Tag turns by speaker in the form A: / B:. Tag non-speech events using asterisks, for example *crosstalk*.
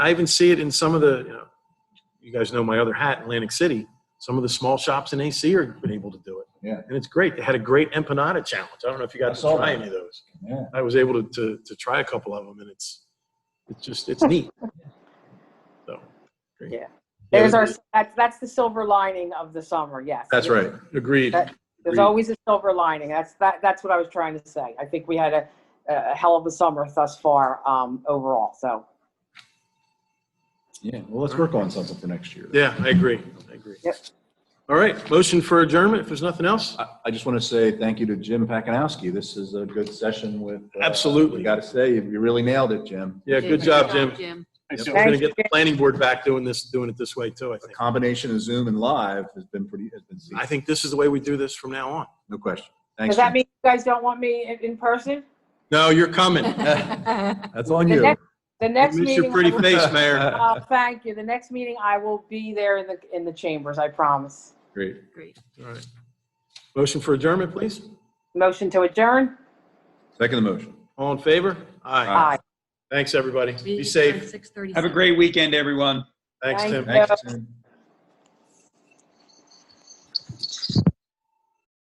A: I even see it in some of the, you know, you guys know my other hat, in Atlantic City. Some of the small shops in AC are been able to do it.
B: Yeah.
A: And it's great. They had a great empanada challenge. I don't know if you
B: I
A: got to
B: saw
A: try
B: that.
A: any of those.
B: Yeah.
A: I was able to, to, to try a couple of them and it's, it's just, it's neat. So. great.
C: Yeah.
A: Yeah,
C: There's our,
A: it-
C: that's, that's the silver lining of the summer, yes.
A: That's right. Agreed.
C: That- There's
A: Agreed.
C: always a silver lining. That's, that, that's what I was trying to say. I think we had a, a hell of a summer thus far, um, overall, so.
B: Yeah. Well, let's work on something for next year.
A: Yeah, I agree. I agree.
C: Yep.
A: All right. Motion for adjournment if there's nothing else.
B: I, I just want to say thank you to Jim Pakanowski. This is a good session with. uh,
A: Absolutely.
B: We got to say, you you really nailed it, Jim.
A: Yeah, good job, Jim.
D: Jim.
A: Yep, We're
C: Thank
A: gonna
C: you,
A: get the
C: Jim.
A: planning board back doing this, doing it this way too, I
B: The
A: think.
B: combination of Zoom and live has been pretty, has been,
A: I
B: seamless.
A: think this is the way we do this from now on.
B: no question. Thanks.
C: Does that
B: Jim.
C: mean you guys don't want me in, in person?
A: No, you're *laughs* coming.
B: *laughs* That's on
C: The
B: you.
C: next- The
A: We
C: next
A: miss your
C: meeting, I
A: pretty
C: will-
A: face, Mayor.
C: *laughs* uh, thank you. The next meeting, I will be there in the, in the chambers, I promise.
B: Great.
D: Great.
A: *laughs* All right. Motion for adjournment, please.
C: Motion to adjourn?
B: Second the motion.
A: All in favor? Aye.
C: Aye.
A: Thanks, everybody. Be safe.
D: Six thirty.
E: Have a great weekend, everyone.
A: Thanks,
C: Thank
A: Tim.
C: you.
B: Thanks, Tim.